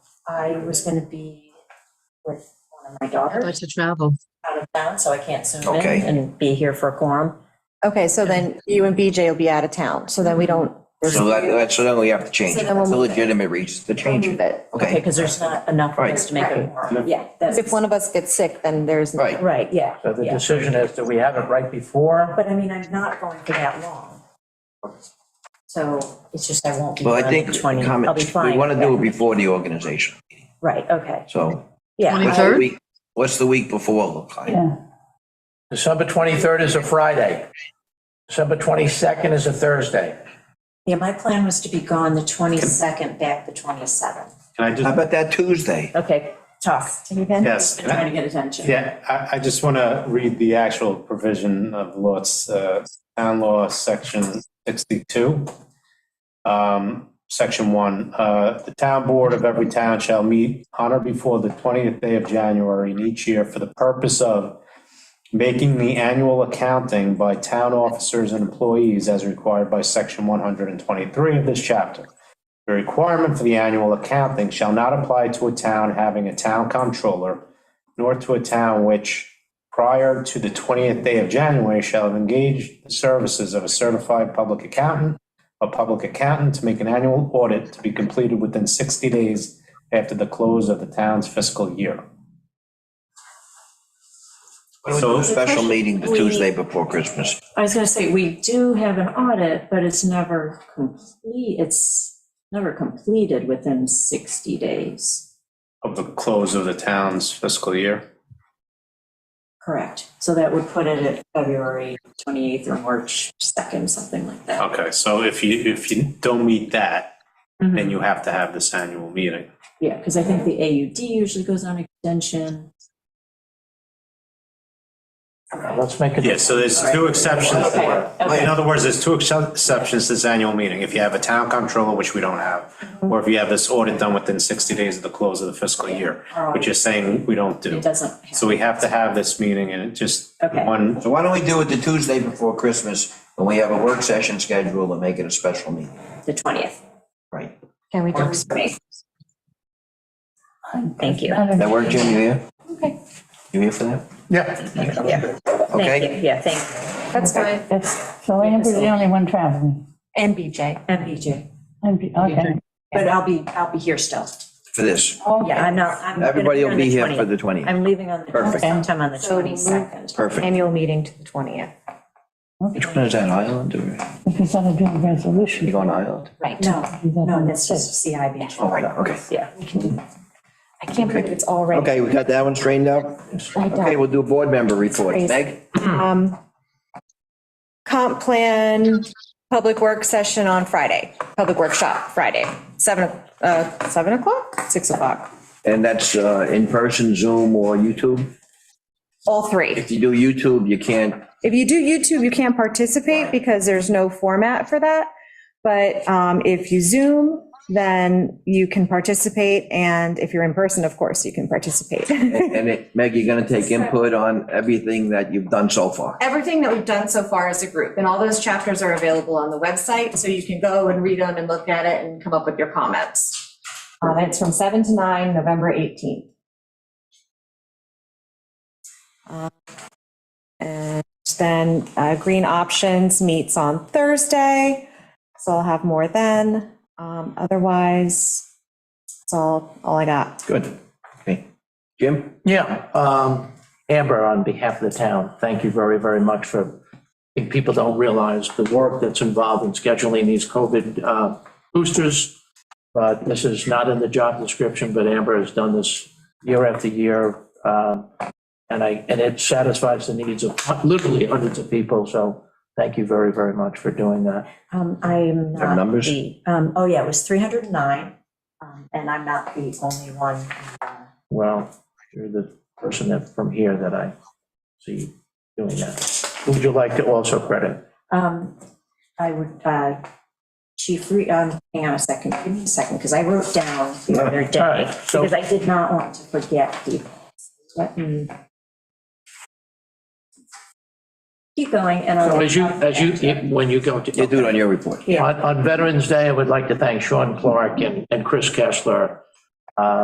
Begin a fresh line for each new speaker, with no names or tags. I was gonna be with one of my
I'd like
daughters
to travel.
out of town, so I can't zoom
Okay.
in and be here for a quorum.
Okay, so then you and BJ will be out of town, so then we don't.
So that, that's, so then we have to change
So
it.
then we'll
It's a
move it.
legitimate reason to change it.
But
Okay,
Okay,
because there's not enough of us to make a quorum. Yeah, that's,
if one of us gets sick, then there's.
right.
right, yeah,
So the
yeah.
decision is, do we have it right before?
But I mean, I'm not going for that long. So it's just I won't be
Well,
on
I
the
think,
twenty, I'll be
comments-
fine.
we want to do it
yeah.
before the organization,
Right, okay,
so.
yeah.
what's the
23rd?
week- What's the week before look like?
December 23rd is a Friday. December 22nd is a Thursday.
Yeah, my plan was to be gone the twenty-second, back the twenty-seventh.
Can I
How
just,
about that Tuesday?
Okay, talk.
yes,
I'm trying to get attention.
yeah, I, I just want to read the actual provision of law, it's, uh, town law, section 62. Um, section one, uh, the town board of every town shall meet on or before the 20th day of January in each year for the purpose of making the annual accounting by town officers and employees as required by section 123 of this chapter. The requirement for the annual accounting shall not apply to a town having a town comptroller, nor to a town which, prior to the 20th day of January, shall have engaged the services of a certified public accountant, a public accountant to make an annual audit to be completed within 60 days after the close of the town's fiscal year.
Why don't we do a Special meeting the Tuesday before Christmas.
I was gonna say, we do have an audit, but it's never complete, it's never completed within 60 days.
Of the close of the town's fiscal year?
Correct. So that would put it at February 28th or March 2nd, something like that.
Okay, so if you, if you don't meet that,
Mhm.
then you have to have this annual meeting.
Yeah, because I think the AUD usually goes on extension.
Let's make it.
Yeah, so there's two exceptions.
Okay, okay.
In other words, there's two excep- exceptions to this annual meeting. If you have a town controller, which we don't have,
Mm-hmm.
or if you have this audit done within 60 days of the close of the fiscal year, which you're saying we don't do.
It doesn't.
So we have to have this meeting and it just
Okay.
one,
So why don't we do it the Tuesday before Christmas, when we have a work session scheduled and make it a special meeting?
The 20th.
Right.
Can we do?
Thank you.
That work, Jim, you here? Okay. You here for that?
Yeah,
Okay,
thank you. Yeah, thank
That's fine.
So Amber's the only one traveling.
And BJ.
you. MBJ.
And be- Okay.
But I'll be, I'll be here still.
for this.
Yeah, I'm not. I'm gonna
Everybody will
on
be here for
20th.
the 20th.
I'm leaving on the,
Perfect.
sometime on the
So we move-
22nd.
Perfect.
Annual meeting to the 20th.
Which one is that, Island or,
If you gotta do a
you
resolution.
going to Island?
Right.
No, no, that's just CIB.
Oh, right, okay.
Yeah.
I can't believe it's already.
Okay, we got that one straightened out? Okay, we'll do a board member report.
Crazy.
Meg?
Um, Comp plan, public work session on Friday, public workshop Friday, seven, uh, seven o'clock, six o'clock,
And that's uh, in person, Zoom, or YouTube?
all three.
If you do YouTube, you can't,
If you do YouTube, you can't participate because there's no format for that. But, um, if you Zoom, then you can participate. And if you're in person, of course, you can participate.
and it, Meg, you're gonna take input on everything that you've done so far.
everything that we've done so far as a group, and all those chapters are available on the website, so you can go and read them and look at it and come up with your comments. Um, it's from seven to nine, November eighteenth. Uh, And then, uh, Green Options meets on Thursday, so I'll have more then. Um, otherwise, that's all, all I got.
Good. Okay. Jim?
Yeah, um, Amber, on behalf of the town, thank you very, very much for, I think people don't realize the work that's involved in scheduling these COVID uh, boosters. But this is not in the job description, but Amber has done this year after year. um, And I, and it satisfies the needs of literally hundreds of people, so thank you very, very much for doing that.
Um, I'm
Their
not
numbers?
the, um, oh yeah, it was 309, um, and I'm not the only one. uh,
Well, you're the person that, from here that I see doing that. Who Would you like to also credit?
Um, I would, uh, Chief, Re- um, hang on a second, give me a second, because I wrote down the other
All
day,
right, so-
because I did not want to forget people. Let me. Keep going, and I'll.
So as you, as you, when you go to.
You do it on your report.
Yeah.
On, on Veterans Day, I would like to thank Sean Clark and, and Chris Kessler, uh,